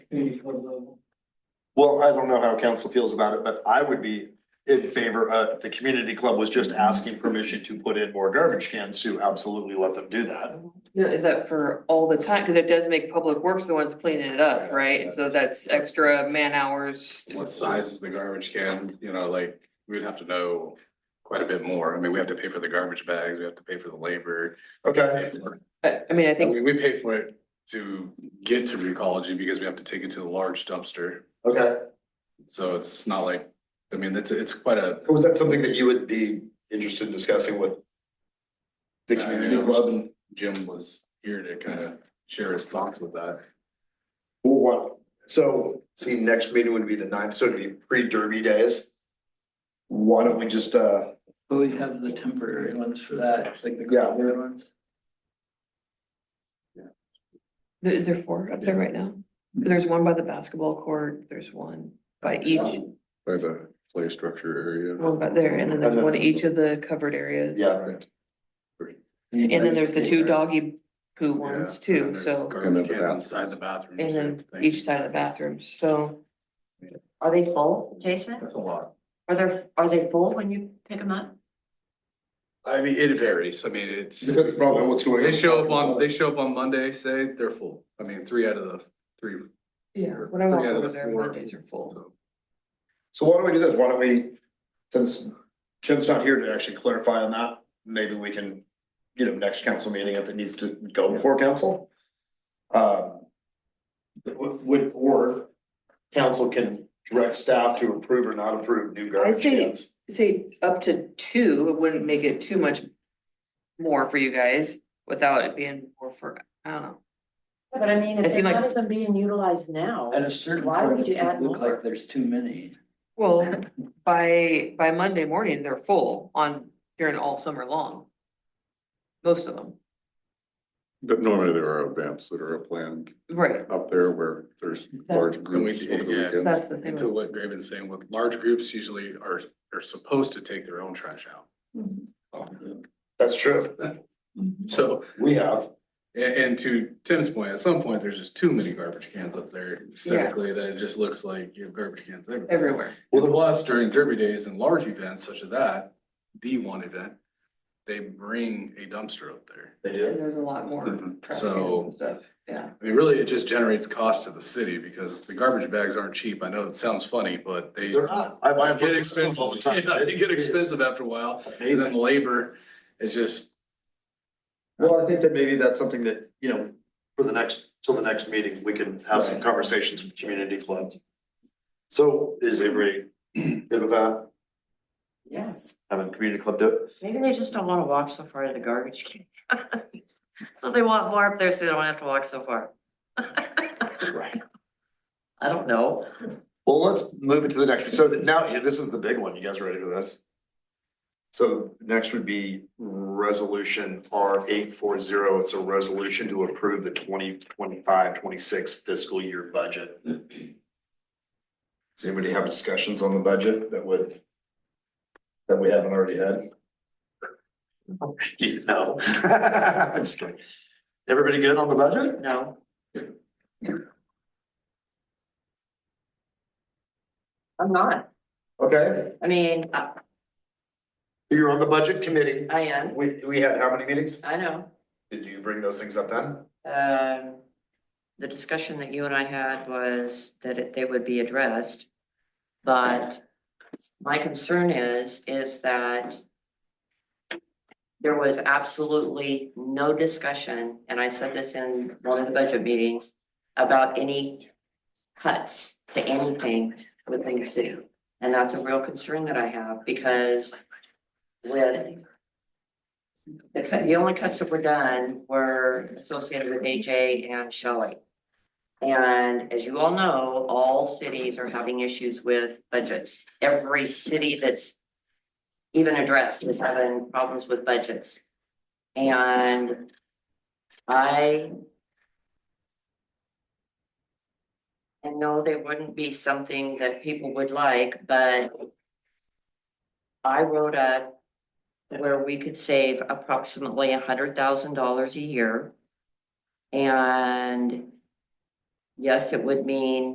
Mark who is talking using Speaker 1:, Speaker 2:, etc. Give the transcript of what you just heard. Speaker 1: community code level.
Speaker 2: Well, I don't know how council feels about it, but I would be in favor, uh, if the community club was just asking permission to put in more garbage cans to absolutely let them do that.
Speaker 3: No, is that for all the time? Cause it does make public works the ones cleaning it up, right? And so that's extra man hours.
Speaker 4: What size is the garbage can, you know, like, we'd have to know quite a bit more, I mean, we have to pay for the garbage bags, we have to pay for the labor.
Speaker 2: Okay,
Speaker 4: pay for-
Speaker 3: I, I mean, I
Speaker 4: I
Speaker 3: think,
Speaker 4: mean, we pay for it to get to Recology because we have to take it to the large dumpster,
Speaker 2: okay.
Speaker 4: so it's not like, I mean, it's, it's quite a.
Speaker 2: Was that something that you would be interested in discussing with the community club and
Speaker 4: Jim was here to kind of share his thoughts with that.
Speaker 2: what? So, see, next meeting would be the ninth, so it'd be pre-derby days. Why don't we just, uh,
Speaker 1: But we have the temporary ones for that, like the
Speaker 2: Yeah.
Speaker 1: temporary ones.
Speaker 3: is there four up there right now? There's one by the basketball court, there's one by each,
Speaker 4: By the play structure area.
Speaker 3: one by there, and then there's one each of the covered areas.
Speaker 2: yeah.
Speaker 3: And then there's the two doggy poo ones too, so,
Speaker 4: Garbage cans inside the bathroom.
Speaker 3: and then each side of the bathroom, so.
Speaker 5: Are they full, Jason?
Speaker 4: That's a lot.
Speaker 5: Are there, are they full when you pick them up?
Speaker 4: I mean, it varies. I mean, it's,
Speaker 2: Depends on what's going
Speaker 4: they show up on, they show up on Monday, say, they're full. I mean, three out of the three.
Speaker 3: Yeah,
Speaker 4: or
Speaker 3: when I
Speaker 4: three
Speaker 3: walk
Speaker 4: out of
Speaker 3: over
Speaker 4: the
Speaker 3: there,
Speaker 4: four.
Speaker 3: Mondays are full.
Speaker 4: So,
Speaker 2: So why don't we do this? Why don't we, since Kim's not here to actually clarify on that, maybe we can, you know, next council meeting, if it needs to go before council. Um. Would, would- or council can direct staff to approve or not approve new garbage
Speaker 3: say-
Speaker 2: cans.
Speaker 3: Say up to two, it wouldn't make it too much more for you guys without it being more for, I don't know.
Speaker 5: But I
Speaker 3: It
Speaker 5: mean, if they're
Speaker 3: seemed like-
Speaker 5: not even being utilized now,
Speaker 1: At a certain
Speaker 5: Why
Speaker 1: point,
Speaker 5: would you
Speaker 1: it's gonna
Speaker 5: add
Speaker 1: look
Speaker 5: more?
Speaker 1: like there's too many.
Speaker 3: Well, by, by Monday morning, they're full on, during all summer long. Most of them,
Speaker 6: But normally there are events that are planned
Speaker 3: right,
Speaker 6: up there where there's
Speaker 3: That's-
Speaker 6: large groups over the
Speaker 4: Yeah.
Speaker 6: weekends.
Speaker 3: that's the thing.
Speaker 4: Into what Graven's saying, with large groups usually are, are supposed to take their own trash out.
Speaker 2: Oh, That's true.
Speaker 4: So,
Speaker 2: We have.
Speaker 4: a- and to Tim's point, at some point, there's just too many garbage cans up there aesthetically that it just looks like you have garbage cans everywhere.
Speaker 3: Everywhere,
Speaker 4: Well, plus during derby days and large events such as that, the one event, they bring a dumpster up there.
Speaker 2: They
Speaker 3: and there's a lot more
Speaker 4: Mhm.
Speaker 3: trash
Speaker 4: So-
Speaker 3: cans and stuff, yeah.
Speaker 4: I mean, really, it just generates cost to the city because the garbage bags aren't cheap. I know it sounds funny, but they
Speaker 2: They're not. I buy them
Speaker 4: get
Speaker 2: from
Speaker 4: expensive.
Speaker 2: all the time.
Speaker 4: Yeah, They get
Speaker 2: It is
Speaker 4: expensive after a while. And
Speaker 2: Amazing.
Speaker 4: then labor is just,
Speaker 2: Well, I think that maybe that's something that, you know, for the next, till the next meeting, we can have some conversations with the community club. So is everybody good with that,
Speaker 5: yes,
Speaker 2: having community club do it?
Speaker 5: maybe they just don't wanna walk so far to the garbage can. So they want more up there, so they don't have to walk so far.
Speaker 2: Right.
Speaker 5: I don't know.
Speaker 2: Well, let's move it to the next, so that now, yeah, this is the big one, you guys ready for this? So next would be resolution R eight four zero, it's a resolution to approve the 2025-26 fiscal year budget. Does anybody have discussions on the budget that would? That we haven't already had? You know, I'm just kidding. Everybody good on the budget?
Speaker 5: No. I'm not,
Speaker 2: Okay,
Speaker 5: I mean, I,
Speaker 2: you're on the budget committee,
Speaker 5: I am,
Speaker 2: we, we had how many meetings?
Speaker 5: I know.
Speaker 2: Did you bring those things up then?
Speaker 5: Um, the discussion that you and I had was that it, they would be addressed. But my concern is, is that there was absolutely no discussion, and I said this in one of the budget meetings, about any cuts to anything within the city. And that's a real concern that I have because with the cut- the only cuts that were done were associated with AJ and Shelley. And as you all know, all cities are having issues with budgets. Every city that's even addressed is having problems with budgets. And I and no, they wouldn't be something that people would like, but I wrote up where we could save approximately a hundred thousand dollars a year. And yes, it would mean